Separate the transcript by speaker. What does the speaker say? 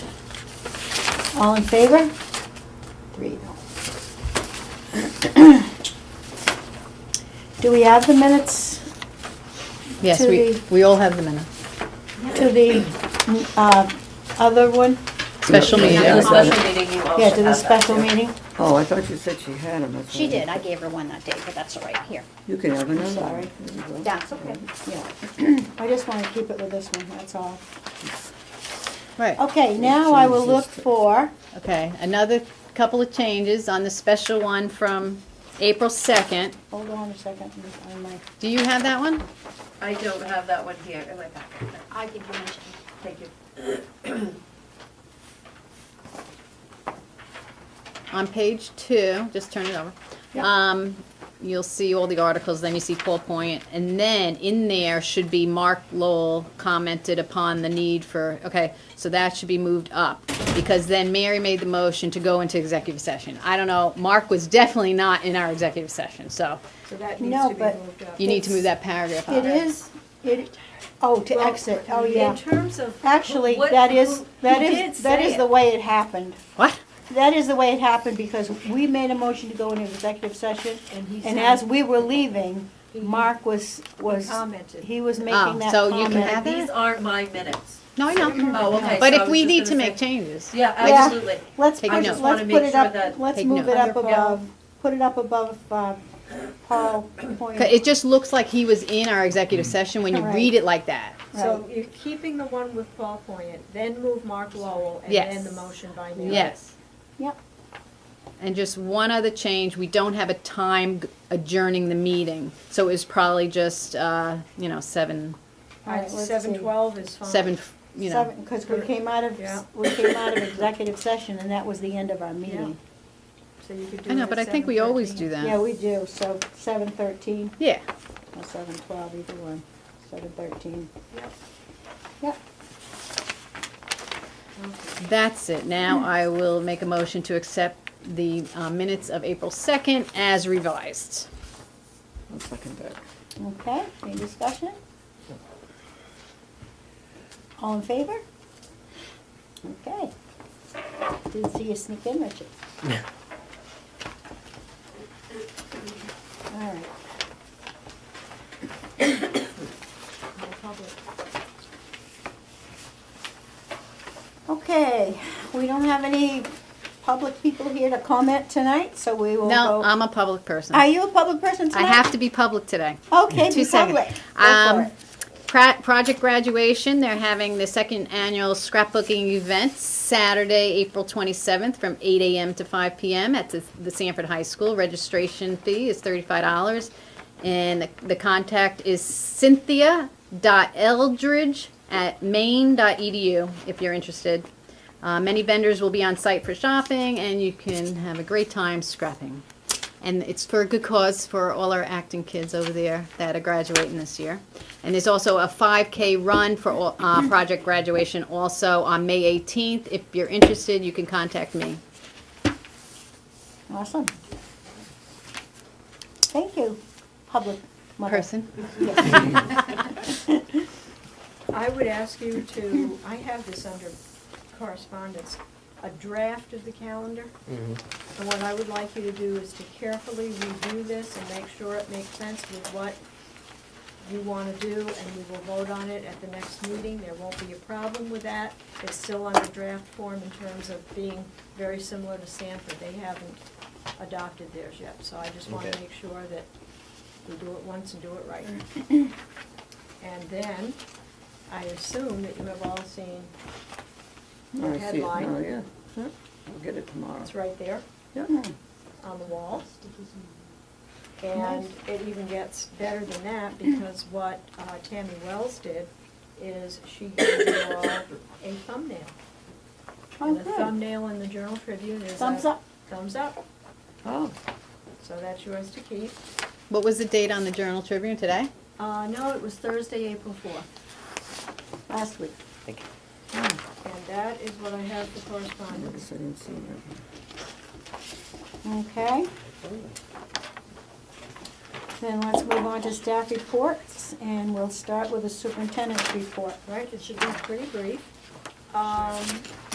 Speaker 1: All in favor? Three. Do we have the minutes
Speaker 2: Yes,
Speaker 1: To
Speaker 2: we,
Speaker 1: the-
Speaker 2: we all have the minutes.
Speaker 1: to the, uh, other one?
Speaker 2: Special
Speaker 3: Yeah,
Speaker 2: meeting.
Speaker 3: the
Speaker 2: Yeah.
Speaker 3: special meeting, you all
Speaker 1: Yeah,
Speaker 3: Oh,
Speaker 1: to
Speaker 3: should
Speaker 1: the
Speaker 3: have that,
Speaker 1: special
Speaker 3: too.
Speaker 1: meeting?
Speaker 4: Oh, I thought you said she had them.
Speaker 5: She did, I gave her one that day, but that's all right, here.
Speaker 4: You can have another.
Speaker 1: Sorry.
Speaker 4: There you go.
Speaker 5: That's okay.
Speaker 1: Yeah. I just wanna keep it with this one, that's all.
Speaker 2: Right,
Speaker 1: Okay, now I will look for,
Speaker 2: Oh. okay, another couple of changes on the special one from April second.
Speaker 1: hold on a second, I'm- I'm like-
Speaker 2: Do you have that one?
Speaker 3: I don't have that one here in my packet.
Speaker 5: I give you one.
Speaker 3: Thank you.
Speaker 2: On page two, just turn it over.
Speaker 1: Yeah.
Speaker 2: Um, you'll see all the articles, then you see Paul Point, and then in there should be Mark Lowell commented upon the need for, okay, so that should be moved up. Because then Mary made the motion to go into executive session. I don't know, Mark was definitely not in our executive session, so
Speaker 3: So that needs
Speaker 1: No,
Speaker 3: to be
Speaker 1: but-
Speaker 3: moved up.
Speaker 2: you need to move that paragraph up.
Speaker 1: it is, it, oh, to
Speaker 3: Well,
Speaker 1: exit, oh, yeah.
Speaker 3: In terms of. who-
Speaker 1: Actually,
Speaker 3: what-
Speaker 1: that is,
Speaker 3: who-
Speaker 1: that
Speaker 3: he did
Speaker 1: is, that
Speaker 3: say
Speaker 1: is the
Speaker 3: it.
Speaker 1: way it happened.
Speaker 2: What?
Speaker 1: That is the way it happened because we made a motion to go into executive session.
Speaker 3: And he
Speaker 1: And
Speaker 3: said-
Speaker 1: as we were leaving, Mark was, was,
Speaker 3: commented.
Speaker 1: he was
Speaker 2: Oh,
Speaker 1: making that
Speaker 2: so you
Speaker 1: comment.
Speaker 2: can have
Speaker 3: These
Speaker 2: that?
Speaker 3: aren't my minutes.
Speaker 2: No, I
Speaker 3: Oh, okay,
Speaker 2: know. But
Speaker 3: so
Speaker 2: if
Speaker 3: I was
Speaker 2: we
Speaker 3: just
Speaker 2: need
Speaker 3: gonna
Speaker 2: to make
Speaker 3: say-
Speaker 2: changes.
Speaker 3: Yeah,
Speaker 1: Yeah.
Speaker 3: absolutely.
Speaker 1: Let's,
Speaker 2: Take
Speaker 1: put-
Speaker 2: notes.
Speaker 1: let's
Speaker 2: I
Speaker 3: wanna
Speaker 1: put
Speaker 3: make
Speaker 1: it
Speaker 3: sure
Speaker 1: up,
Speaker 3: that-
Speaker 1: let's
Speaker 2: Take
Speaker 1: move it
Speaker 2: notes.
Speaker 1: up
Speaker 3: Under
Speaker 1: above, put it up above, uh, Paul Point.
Speaker 2: 'Cause It just looks like he was in our executive session when you
Speaker 1: Right.
Speaker 2: read it like that.
Speaker 6: So you're keeping the one with Paul Poyet, then move Mark Lowell, and
Speaker 2: Yes.
Speaker 6: then the motion by Mary.
Speaker 2: Yes.
Speaker 1: Yep.
Speaker 2: And just one other change, we don't have a time g- adjourning the meeting, so it was probably just, uh, you know, seven,
Speaker 1: All right, let's
Speaker 6: Seven
Speaker 1: see.
Speaker 6: twelve is fine.
Speaker 2: seven, f- you know.
Speaker 1: Seven, cause we came out of,
Speaker 6: Yeah.
Speaker 1: we came out of executive session and that was the end of our meeting.
Speaker 6: So you could do
Speaker 2: I
Speaker 6: it
Speaker 2: know,
Speaker 6: at
Speaker 2: but I think we always
Speaker 6: 7:13.
Speaker 2: do
Speaker 1: Yeah,
Speaker 2: that.
Speaker 1: we do, so seven thirteen
Speaker 2: Yeah,
Speaker 1: or seven twelve, either one, seven thirteen. Yep.
Speaker 2: that's it. Now I will make a motion to accept the uh, minutes of April second as revised.
Speaker 4: I'll second that.
Speaker 1: Yep, okay, any discussion? All in favor? Okay. Didn't see you sneak in, Richard. All right.
Speaker 6: No public.
Speaker 1: Okay, we don't have any public people here to comment tonight, so we will
Speaker 2: No,
Speaker 1: go.
Speaker 2: I'm a public person.
Speaker 1: Are you a public person
Speaker 2: I
Speaker 1: tonight?
Speaker 2: have to be public today.
Speaker 1: Okay,
Speaker 2: Two
Speaker 1: be
Speaker 2: seconds.
Speaker 1: public. Go for
Speaker 2: Um,
Speaker 1: it.
Speaker 2: Pra- Project graduation, they're having the second annual scrapbooking event Saturday, April 27th from 8 a.m. to 5 p.m. at the, the Sanford High School. Registration fee is $35. And the, the contact is cynthia.eldridge at maine.edu if you're interested. Uh, many vendors will be on site for shopping, and you can have a great time scrapping. And it's for a good cause for all our acting kids over there that are graduating this year. And there's also a 5K run for all,
Speaker 1: Mm-hmm.
Speaker 2: uh, project graduation also on May 18th. If you're interested, you can contact me.
Speaker 1: Awesome. Thank you, public mother.
Speaker 2: Person?
Speaker 1: Yes.
Speaker 6: I would ask you to, I have this under correspondence, a draft of the calendar. And what I would like you to do is to carefully review this and make sure it makes sense with what you want to do, and we will vote on it at the next meeting. There won't be a problem with that. It's still under draft form in terms of being very similar to Sanford. They haven't adopted theirs yet, so I just want to
Speaker 7: Okay.
Speaker 6: make sure that we do it once and do it right. And then, I assume that you have all seen,
Speaker 4: Oh, I see it
Speaker 6: Headline.
Speaker 4: now, yeah. I'll get it tomorrow.
Speaker 6: it's right there
Speaker 4: Yeah.
Speaker 6: on the wall. And it even gets better than that, because what uh, Tammy Wells did is she gave you all a thumbnail.
Speaker 1: Oh,
Speaker 6: And the
Speaker 1: good.
Speaker 6: thumbnail in the Journal Tribune is a.
Speaker 1: Thumbs up.
Speaker 6: Thumbs up,
Speaker 4: Oh,
Speaker 6: so that's yours to keep.
Speaker 2: What was the date on the Journal Tribune today?
Speaker 6: Uh, no, it was Thursday, April fourth,
Speaker 1: Last week.
Speaker 6: and that is what I have for correspondence.
Speaker 4: yes, I didn't see that.
Speaker 1: Okay. Then let's move on to staff reports, and we'll start with the superintendent's report.
Speaker 6: Right, it should be pretty brief. Um,